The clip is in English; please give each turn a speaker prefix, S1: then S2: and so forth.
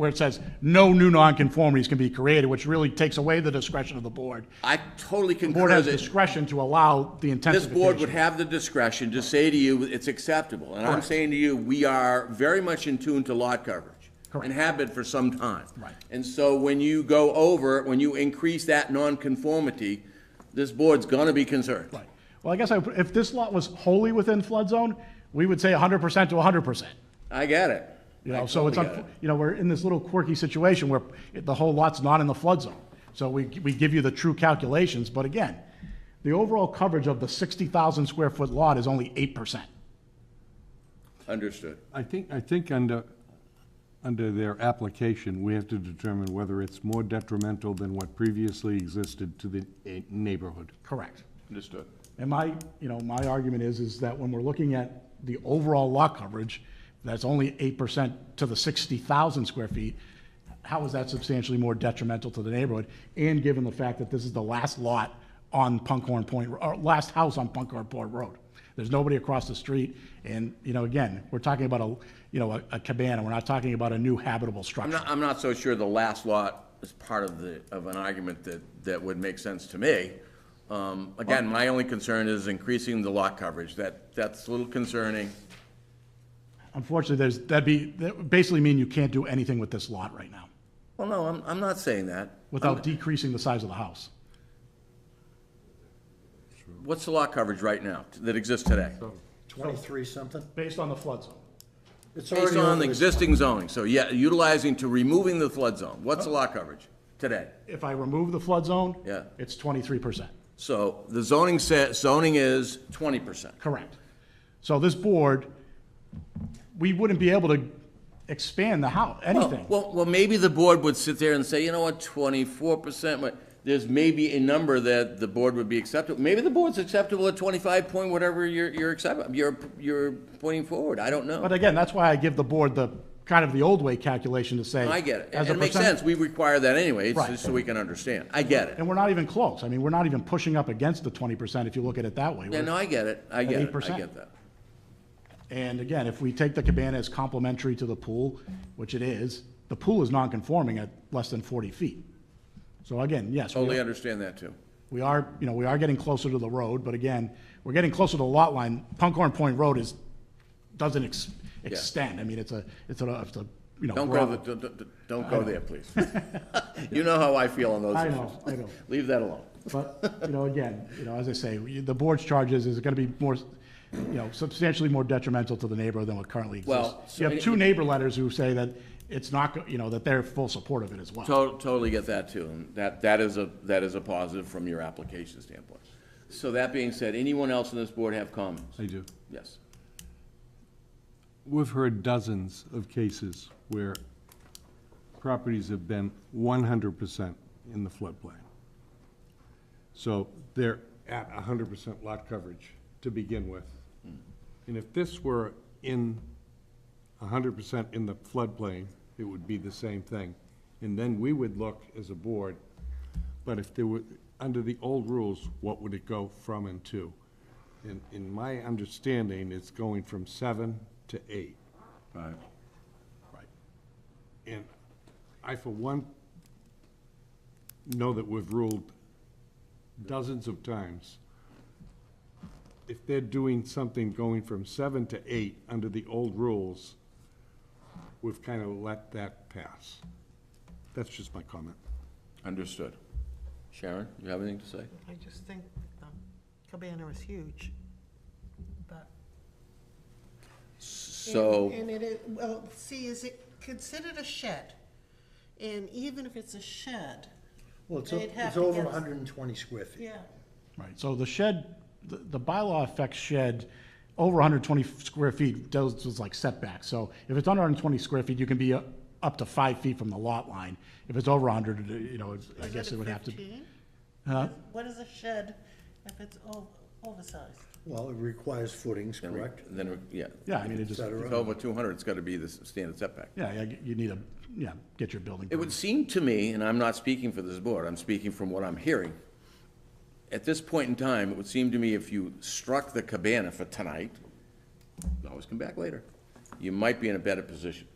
S1: where it says, no new nonconformities can be created, which really takes away the discretion of the board.
S2: I totally
S1: The board
S2: concur
S1: has
S2: that
S1: discretion to allow the
S2: this
S1: intensification.
S2: board would have the discretion to say to you, it's acceptable. And I'm saying to you, we are very much in tune to lot coverage.
S1: Correct.
S2: And have been for some time.
S1: Right.
S2: And so when you go over, when you increase that nonconformity, this board's gonna be concerned.
S1: Right. Well, I guess I- if this lot was wholly within flood zone, we would say hundred percent to hundred percent.
S2: I get it.
S1: You
S2: I
S1: know, so it's,
S2: totally get
S1: unf- you know, we're in this little quirky situation where it- the whole lot's not in the flood zone. So we, we give you the true calculations, but again, the overall coverage of the sixty thousand square foot lot is only eight percent.
S2: it. Understood.
S3: I think, I think under, under their application, we have to determine whether it's more detrimental than what previously existed to the eh, neighborhood.
S1: Correct.
S2: Understood.
S1: And my, you know, my argument is, is that when we're looking at the overall lot coverage, that's only eight percent to the sixty thousand square feet, how is that substantially more detrimental to the neighborhood? And given the fact that this is the last lot on Punkhorn Point, or last house on Punkhorn Point Road. There's nobody across the street, and, you know, again, we're talking about a, you know, a- a cabana, we're not talking about a new habitable
S2: I'm
S1: structure.
S2: not, I'm not so sure the last lot is part of the, of an argument that, that would make sense to me. Um, Again, my only concern is increasing the lot coverage. That, that's a little concerning.
S1: Unfortunately, there's, that'd be, that would basically mean you can't do anything with this lot right now,
S2: Well, no, I'm, I'm not saying that.
S1: without decreasing the size of the house.
S2: What's the lot coverage right now that exists today?
S4: Twenty-three something?
S1: Based on the flood zone.
S4: It's
S2: Based
S4: already
S2: on
S4: over
S2: the
S4: the-
S2: existing zoning, so yeah, utilizing to removing the flood zone, what's the lot coverage today?
S1: If I remove the flood zone?
S2: Yeah.
S1: It's twenty-three percent,
S2: So the zoning says, zoning is twenty percent.
S1: correct. So this board, we wouldn't be able to expand the house, anything.
S2: Well, well, maybe the board would sit there and say, you know what, twenty-four percent, but there's maybe a number that the board would be acceptable. Maybe the board's acceptable at twenty-five point whatever you're, you're accept, you're, you're pointing forward, I don't know.
S1: But again, that's why I give the board the, kind of the old way calculation to say.
S2: I get it,
S1: as
S2: and
S1: a
S2: it makes
S1: percent-
S2: sense, we require that anyway, it's
S1: Right.
S2: just so we can understand, I get it.
S1: And we're not even close. I mean, we're not even pushing up against the twenty percent if you look at it that way.
S2: Yeah, no, I get it, I get it, I
S1: 8%.
S2: get that.
S1: And again, if we take the cabana as complementary to the pool, which it is, the pool is non-conforming at less than forty feet. So again, yes. we-
S2: Totally understand that too.
S1: We are, you know, we are getting closer to the road, but again, we're getting closer to the lot line. Punkhorn Point Road is, doesn't ex- extend. I mean, it's a, it's a, it's a, you know.
S2: Don't go,
S1: broad-
S2: th- don't- don't- don't go there, please. You know how I feel on those
S1: I
S2: issues.
S1: know, I know.
S2: Leave that alone.
S1: But, you know, again, you know, as I say, we- the board's charges is gonna be more, you know, substantially more detrimental to the neighborhood than what currently exists.
S2: Well, so
S1: You have
S2: it-
S1: two neighbor letters who say that it's not, go- you know, that they're full support of it as well.
S2: To- Totally get that too, and that, that is a, that is a positive from your application standpoint. So that being said, anyone else on this board have comments?
S3: I do.
S2: Yes.
S3: We've heard dozens of cases where properties have been one hundred percent in the floodplain. So they're at hundred percent lot coverage to begin with. And if this were in hundred percent in the floodplain, it would be the same thing. And then we would look as a board, but if there were, under the old rules, what would it go from and to? In, in my understanding, it's going from seven to eight.
S2: Right.
S3: Right. And I, for one, know that we've ruled dozens of times. If they're doing something going from seven to eight under the old rules, we've kind of let that pass. That's just my comment.
S2: Understood. Sharon, you have anything to say?
S5: I just think um, Cabana is huge, but.
S2: So,
S5: And it is, well, see, is it considered a shed? And even if it's a shed,
S4: Well, it's, o-
S5: They'd have
S4: it's
S5: to
S4: over
S5: get-
S4: hundred and twenty square feet.
S5: yeah,
S1: Right, so the shed, the the bylaw affects shed over 120 square feet, does, was like setback. So if it's under 120 square feet, you can be uh, up to five feet from the lot line. If it's over 100, it- you know, it's- I
S5: Is
S1: guess
S5: it
S1: it would have to.
S5: 15?
S1: Huh?
S5: What is a shed if it's o- oversized?
S4: Well, it requires footings, correct?
S2: then, yeah.
S1: Yeah, I mean, it
S4: Et
S1: just,
S2: If
S4: cetera.
S2: it's over two hundred, it's gotta be the standard setback.
S1: yeah, yeah, you need a, yeah, get your building.
S2: It would
S1: permit.
S2: seem to me, and I'm not speaking for this board, I'm speaking from what I'm hearing. At this point in time, it would seem to me if you struck the cabana for tonight, always come back later, you might be in a better position.